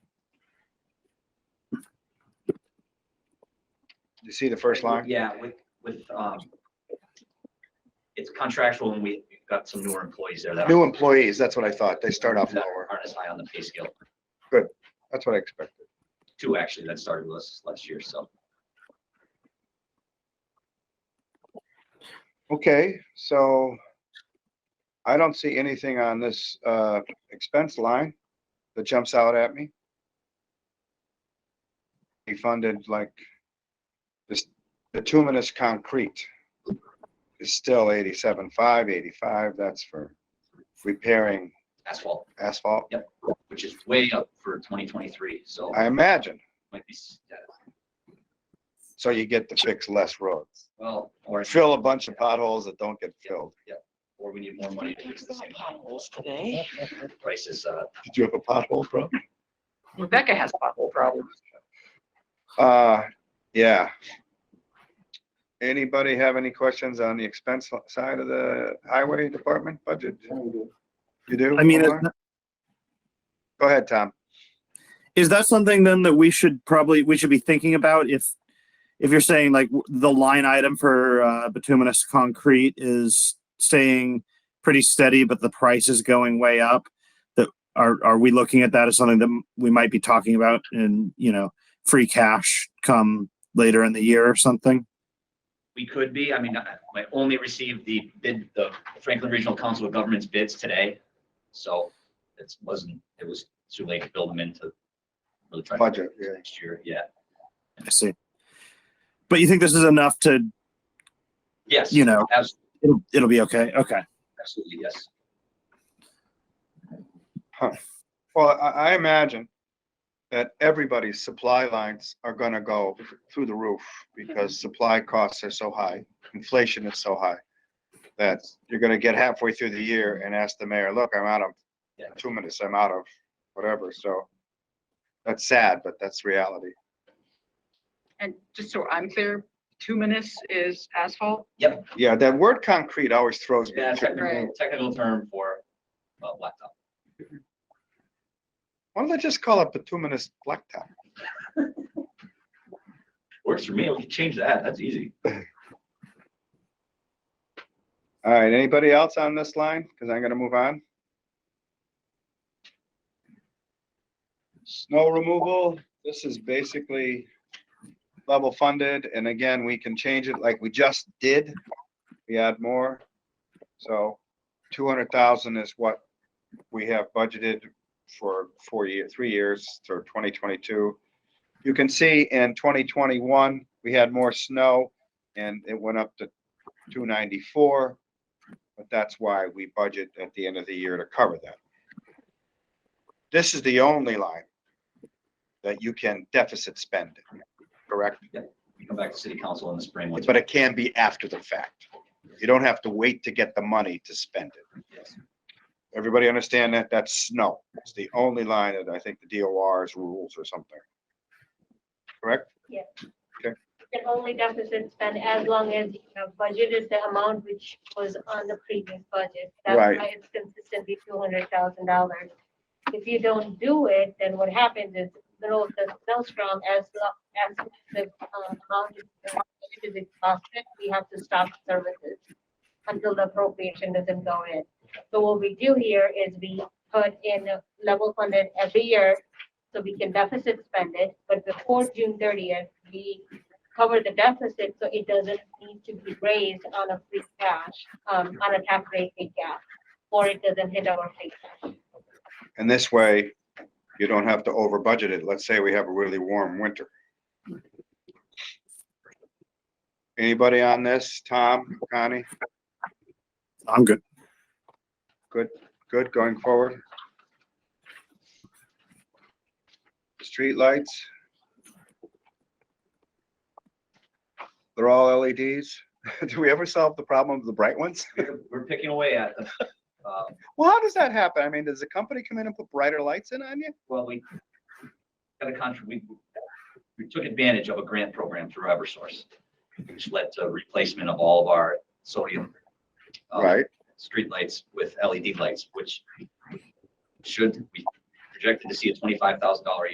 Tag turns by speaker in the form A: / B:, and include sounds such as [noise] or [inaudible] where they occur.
A: You see the first line?
B: Yeah, with, with, um, it's contractual and we've got some newer employees there that
A: New
B: aren't-
A: employees, that's what I thought. They start off
B: that
A: lower.
B: Aren't as high on the pay scale.
A: That's what I expected.
B: Two actually that started with us last year, so.
A: Okay, so I don't see anything on this uh, expense line that jumps out at me. He funded like this bituminous concrete is still 87.5, 85. That's for repairing
B: Asphalt,
A: asphalt.
B: which is way up for twenty twenty-three, so
A: I imagine.
B: might be, s- yeah,
A: So you get to fix less roads,
B: well, or,
A: fill a bunch of potholes that don't get filled.
B: or we need more money to fix the same prices, uh,
A: [laughs] Did you have a pothole problem?
C: Rebecca has pothole problems.
A: Uh, yeah. Anybody have any questions on the expense li- side of the highway department budget? You do?
D: I mean, is,
A: Omar? Go ahead, Tom.
D: is that something then that we should probably, we should be thinking about if, if you're saying like w- the line item for uh, bituminous concrete is staying pretty steady, but the price is going way up? That, are, are we looking at that as something that m- we might be talking about in, you know, free cash come later in the year or something?
B: we could be, I mean, I I only received the bid, the Franklin Regional Council of Governments bids today. So it wasn't, it was too late to build them into really try to
A: Budget, yeah.
B: next year, yeah.
D: I see. But you think this is enough to,
B: Yes,
D: you know,
B: abs-
D: it'll, it'll be okay? Okay.
B: absolutely, yes.
A: Well, I, I imagine that everybody's supply lines are gonna go through the roof because
B: Mm-hmm.
A: supply costs are so high, inflation is so high. That you're gonna get halfway through the year and ask the mayor, look, I'm out of
B: Yeah.
A: two minutes, I'm out of whatever, so. That's sad, but that's reality.
C: And just so I'm clear, two minutes is asphalt.
A: Yeah, that word concrete always throws me.
B: Yeah,
A: too.
B: technical, technical term for uh, blacktop.
A: Why don't they just call it bituminous blacktop?
B: Works for me, we can change that, that's easy.
A: All right, anybody else on this line? Because I'm gonna move on. Snow removal, this is basically level funded, and again, we can change it like we just did. We add more. So two hundred thousand is what we have budgeted for four year, three years, for twenty twenty-two. You can see in twenty twenty-one, we had more snow, and it went up to two ninety-four. But that's why we budget at the end of the year to cover that. This is the only line that you can deficit spend, correct?
B: We come back to city council in the spring. once-
A: But it can be after the fact. You don't have to wait to get the money to spend it.
B: Yes.
A: Everybody understand that? That's snow. It's the only line that I think the DOR's rules or something. Correct?
E: can only deficit spend as long as you have budgeted the amount which was on the previous budget. That's
A: Right.
E: why it's consistently two hundred thousand dollars. If you don't do it, then what happens is, the road the snowstorm, as long as the um, amount is budgeted is exhausted, we have to stop services until the appropriation doesn't go in. So what we do here is we put in a level funded every year, so we can deficit spend it, but before June thirtieth, we cover the deficit, so it doesn't need to be raised on a free cash, um, on a tax rate free cash, or it doesn't hit our free cash.
A: And this way, you don't have to over budget it. Let's say we have a really warm winter. Anybody on this? Tom, Connie,
D: I'm good.
A: good going forward? Streetlights? They're all LEDs. [laughs] Do we ever solve the problem of the bright ones?
B: We're- We're picking away at, them. uh,
A: Well, how does that happen? I mean, does the company come in and put brighter lights in on you?
B: well, we got a contract, we, we took advantage of a grant program through Eversource, which led to replacement of all of our sodium um,
A: Right,
B: streetlights with LED lights, which should, we projected to see a twenty-five thousand dollar